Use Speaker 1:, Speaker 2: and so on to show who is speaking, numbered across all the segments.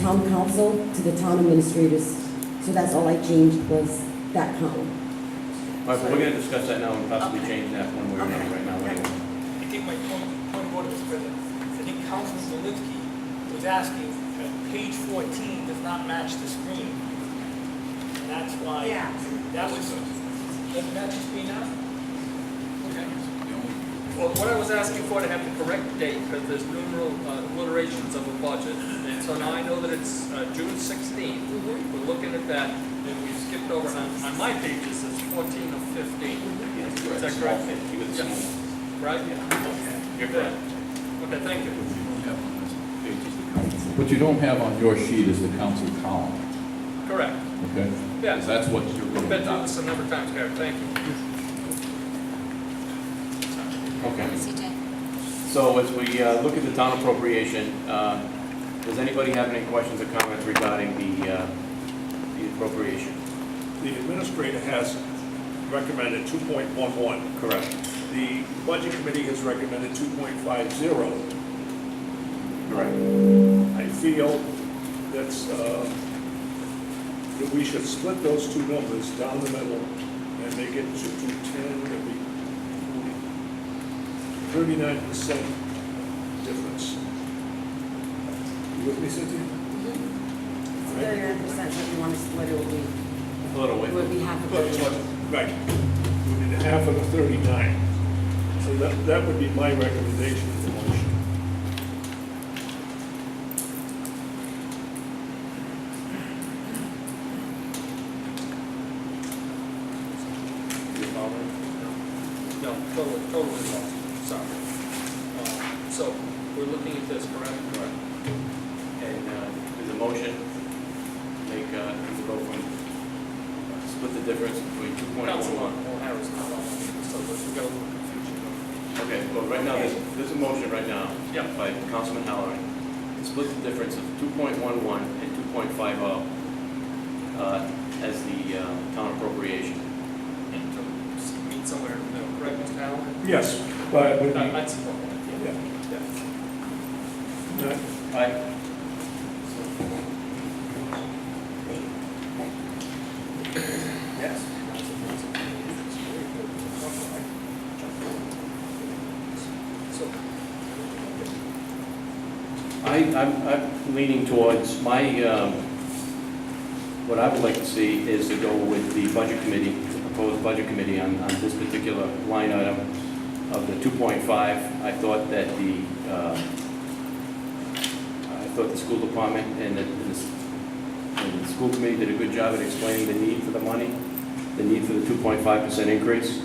Speaker 1: town council to the town administrators. So that's all I changed was that column.
Speaker 2: All right, but we're gonna discuss that now and possibly change that one way or another right now. anyway.
Speaker 3: I think my point, point of order, Mr. President, I think Councilman Zelinski was asking, uh, page fourteen does not match the screen. And that's why,
Speaker 4: Yeah.
Speaker 3: that was, doesn't match the screen now? Okay. Well, what I was asking for to have the correct date, because there's numeral uh, alliterations of a budget, and so now I know that it's uh, June sixteenth.
Speaker 2: Mm-hmm.
Speaker 3: We're looking at that, and we skipped over on, on my pages, it's fourteen of fifteen.
Speaker 2: Mm-hmm.
Speaker 3: Is that correct?
Speaker 2: You got the small
Speaker 3: Yes. Right? Okay.
Speaker 2: You're correct.
Speaker 3: Okay, thank you.
Speaker 5: What you don't have on your sheet is the council column,
Speaker 3: Correct.
Speaker 5: okay?
Speaker 3: Yes.
Speaker 5: That's what you're
Speaker 3: We've
Speaker 5: going
Speaker 3: been through
Speaker 5: to
Speaker 3: this a number of times, Gary, thank you.
Speaker 2: Okay,
Speaker 6: CJ.
Speaker 2: so as we uh, look at the town appropriation, uh, does anybody have any questions or comments regarding the uh, the appropriation?
Speaker 7: The administrator has recommended 2.11.
Speaker 2: Correct.
Speaker 7: The budget committee has recommended 2.50.
Speaker 2: Correct.
Speaker 7: I feel that's, uh, that we should split those two numbers down the middle and make it to 210, that we, 39% difference. You with me, Cynthia?
Speaker 1: Mm-hmm. Thirty-nine percent, what you want to split it would be,
Speaker 2: A little
Speaker 1: it
Speaker 2: way.
Speaker 1: would be half of
Speaker 7: But, but,
Speaker 1: it.
Speaker 7: right, we need half of the 39. So that, that would be my recommendation for the motion.
Speaker 3: No, totally, totally wrong, sorry. Uh, So, we're looking at this, correct? Correct.
Speaker 2: And uh, there's a motion, make, uh, to go from, split the difference between two point
Speaker 3: Council
Speaker 2: one
Speaker 3: on,
Speaker 2: one.
Speaker 3: well, Harris, not on, so we've got a little confusion.
Speaker 2: Okay, well, right now, there's, there's a motion right now.
Speaker 3: Yeah.
Speaker 2: By Councilman Halloran. It splits the difference of two point one one and two point five oh, uh, as the, uh, town appropriation.
Speaker 3: And to meet somewhere in the middle, correct, Mr. Allen?
Speaker 7: Yes, but it would be,
Speaker 3: I'd support that.
Speaker 7: yeah,
Speaker 3: yeah.
Speaker 7: not-
Speaker 2: Aye.
Speaker 3: Yes. So,
Speaker 2: I, I'm, I'm leaning towards, my, um, what I would like to see is to go with the budget committee, the proposed budget committee on, on this particular line item of the two point five. I thought that the, uh, I thought the school department and the, and the s- and the school committee did a good job at explaining the need for the money, the need for the two point five percent increase.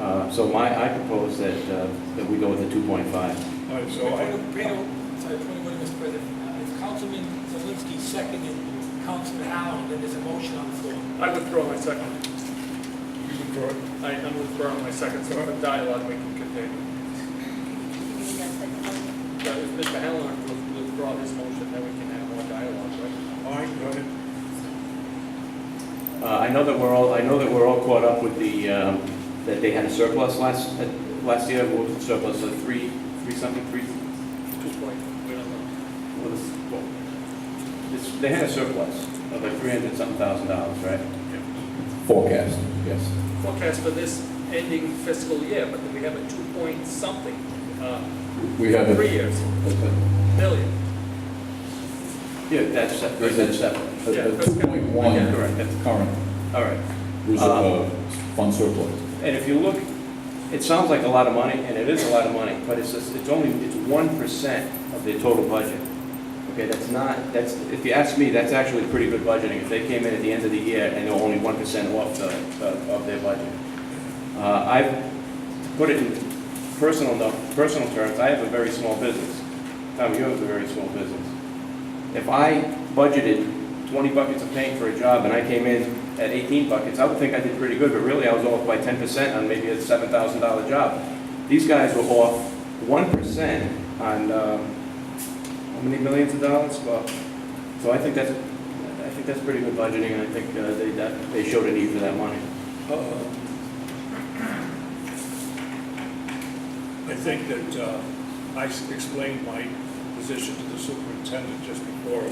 Speaker 2: Uh, so my, I propose that, uh, that we go with the two point five.
Speaker 7: all right, so
Speaker 3: Before
Speaker 7: I,
Speaker 3: you- before you- sorry, before you go to Mr. President, uh, if Councilman Zelinski seconded Councilman Allen, then there's a motion on the floor.
Speaker 8: I withdraw my second. You withdraw it? I am withdrawing my second, so the dialogue we can continue.
Speaker 3: But if Mr. Allen will withdraw his motion, then we can have more dialogue, right?
Speaker 7: all right, go ahead.
Speaker 2: Uh, I know that we're all, I know that we're all caught up with the, um, that they had a surplus last, uh, last year, what was the surplus, of three, three something, three,
Speaker 3: Two point, we don't know.
Speaker 2: what was, what? This- They had a surplus of like three hundred something thousand dollars, right?
Speaker 5: forecast, yes.
Speaker 3: Forecast for this ending fiscal year, but we have a two point something, uh,
Speaker 5: We have
Speaker 3: three
Speaker 5: a,
Speaker 3: years, million.
Speaker 2: Yeah, that's separate, that's separate.
Speaker 5: two point one
Speaker 2: Yeah, correct, that's-
Speaker 5: current
Speaker 2: All right.
Speaker 5: reserve, uh, fund surplus.
Speaker 2: And if you look, it sounds like a lot of money, and it is a lot of money, but it's just, it's only, it's one percent of their total budget. Okay, that's not, that's, if you ask me, that's actually pretty good budgeting. If they came in at the end of the year and they're only one percent off the, of- of their budget. Uh, I've put it in personal, no- personal terms, I have a very small business. Tom, you have a very small business. If I budgeted twenty buckets of paint for a job and I came in at eighteen buckets, I would think I did pretty good, but really I was off by ten percent on maybe a seven thousand dollar job. These guys were off one percent on, um, how many millions of dollars? Well, so I think that's, I think that's pretty good budgeting, and I think uh, they, that- they showed a need for that money.
Speaker 7: Uh, I think that uh, I s- explained my position to the superintendent just before